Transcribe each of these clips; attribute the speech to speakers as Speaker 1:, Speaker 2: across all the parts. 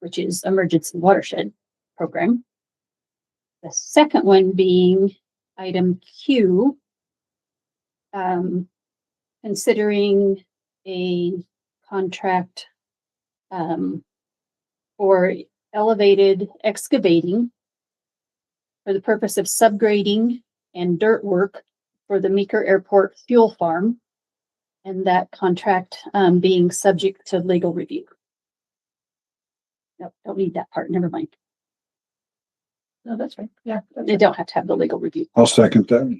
Speaker 1: which is emergency watershed program. The second one being item Q. Um, considering a contract um, for elevated excavating for the purpose of subgrading and dirt work for the Meeker Airport Fuel Farm. And that contract um, being subject to legal review. Nope, don't need that part, never mind.
Speaker 2: No, that's right. Yeah. that's
Speaker 1: They
Speaker 2: right.
Speaker 1: don't have to have the legal review.
Speaker 3: I'll second that.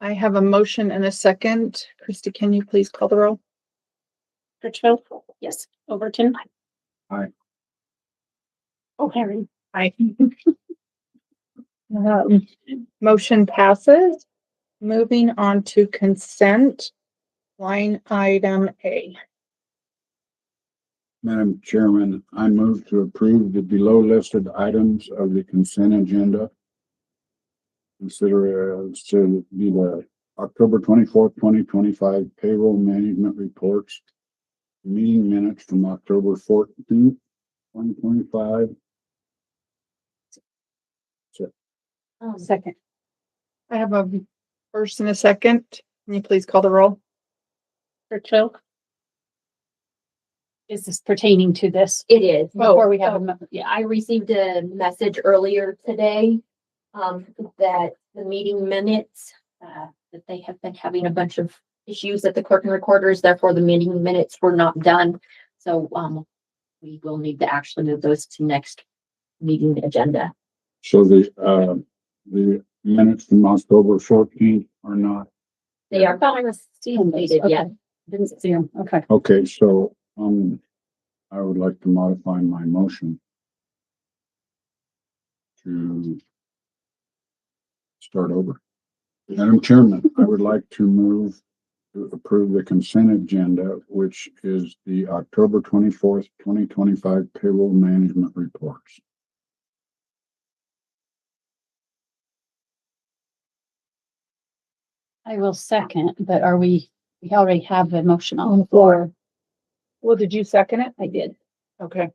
Speaker 2: I have a motion and a second. Christy, can you please call the roll?
Speaker 4: Litchfield,
Speaker 1: Yes,
Speaker 4: Overton.
Speaker 3: Aye.
Speaker 4: O'Hairy.
Speaker 2: Aye. Um, Motion passes. Moving on to consent. Line item A.
Speaker 3: Madam Chairman, I move to approve the below listed items of the consent agenda. Consider as to be the October twenty-fourth, twenty twenty-five payroll management reports. Meeting minutes from October fourteenth, twenty twenty-five.
Speaker 1: second,
Speaker 2: I have a first and a second. Can you please call the roll?
Speaker 4: Litchfield.
Speaker 1: is this pertaining to this?
Speaker 5: It is.
Speaker 1: Before we have, a mo- yeah,
Speaker 5: I received a message earlier today, um, that the meeting minutes, uh, that they have been having a bunch of issues at the clerk and recorders, therefore the meeting minutes were not done. So, um, we will need to actually move those to next meeting agenda.
Speaker 3: So the, uh, the minutes from October fourteenth are not,
Speaker 5: They are not completed yet.
Speaker 1: didn't see him, okay.
Speaker 3: okay, so, um, I would like to modify my motion. To start over. Madam Chairman, I would like to move to approve the consent agenda, which is the October twenty-fourth, twenty twenty-five payroll management reports.
Speaker 1: I will second, but are we, we already have a motion on the floor.
Speaker 2: Well, did you second it?
Speaker 1: I did,
Speaker 2: Okay.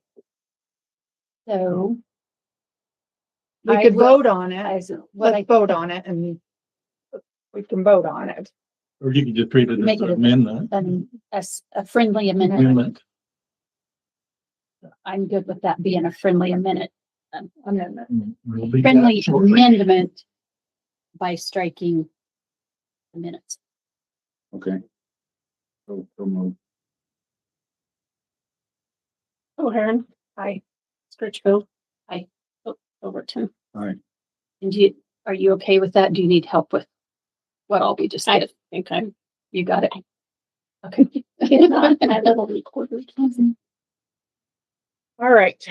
Speaker 1: so.
Speaker 2: We
Speaker 1: I
Speaker 2: could
Speaker 1: will-
Speaker 2: vote on
Speaker 1: I,
Speaker 2: it.
Speaker 1: what I
Speaker 2: Let's vote on it and we can vote on it.
Speaker 6: Or you could just read it as
Speaker 1: Make it
Speaker 6: an
Speaker 1: a-
Speaker 6: amendment.
Speaker 1: um, as a friendly amendment,
Speaker 6: Amendment.
Speaker 1: I'm good with that being a friendly amendment. um, Amendment.
Speaker 6: We'll leave that
Speaker 1: Friendly
Speaker 6: shortly.
Speaker 1: amendment by striking the minutes.
Speaker 3: Okay. So, so move.
Speaker 1: Oh,
Speaker 4: O'Hairy.
Speaker 2: Aye.
Speaker 4: Litchfield.
Speaker 1: Aye.
Speaker 4: O- Overton.
Speaker 3: All right.
Speaker 1: Oh, And you, are you okay with that? Do you need help with what all we just
Speaker 4: I
Speaker 1: did?
Speaker 4: think I'm.
Speaker 1: You got it? Okay.
Speaker 4: little recorder.
Speaker 1: Mm-hmm.
Speaker 2: All right,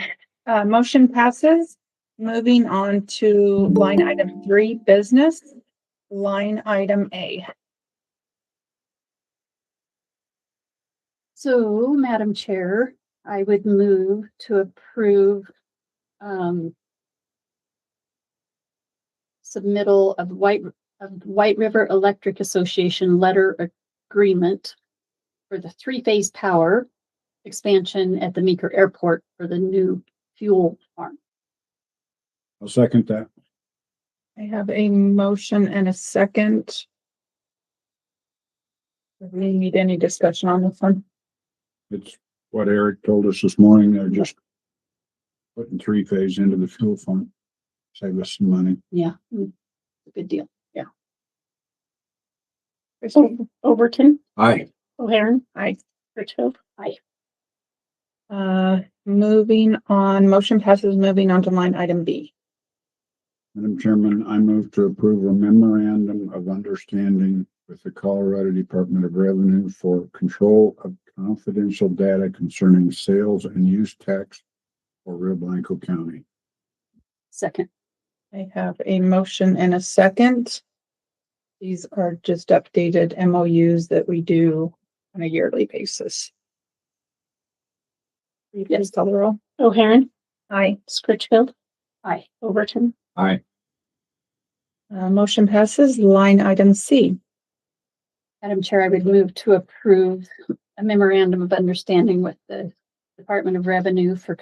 Speaker 2: uh, motion passes. Moving on to line item three, business, line item A.
Speaker 1: So, Madam Chair, I would move to approve um submittal of White, of White River Electric Association letter agreement for the three-phase power expansion at the Meeker Airport for the new fuel farm.
Speaker 3: I'll second that.
Speaker 2: I have a motion and a second. Do We need any discussion on this one.
Speaker 3: It's what Eric told us this morning. They're just putting three phase into the fuel fund. Save us some money.
Speaker 1: Yeah. mm, Good deal.
Speaker 4: Overton.
Speaker 3: Aye.
Speaker 4: O'Hairy.
Speaker 2: Aye.
Speaker 4: Litchfield.
Speaker 2: Uh, moving on, motion passes, moving on to line item B.
Speaker 3: Madam Chairman, I move to approve a memorandum of understanding with the Colorado Department of Revenue for control of confidential data concerning sales and use tax for Rio Blanco County.
Speaker 1: Second.
Speaker 2: I have a motion and a second. These are just updated MOUs that we do on a yearly basis. Will you Please call the roll.
Speaker 4: O'Hairy.
Speaker 2: Aye.
Speaker 4: Litchfield.
Speaker 1: Aye.
Speaker 4: Overton.
Speaker 3: Aye.
Speaker 2: Uh, motion passes. Line item C.
Speaker 1: Madam Chair, I would move to approve a memorandum of understanding with the Department of Revenue for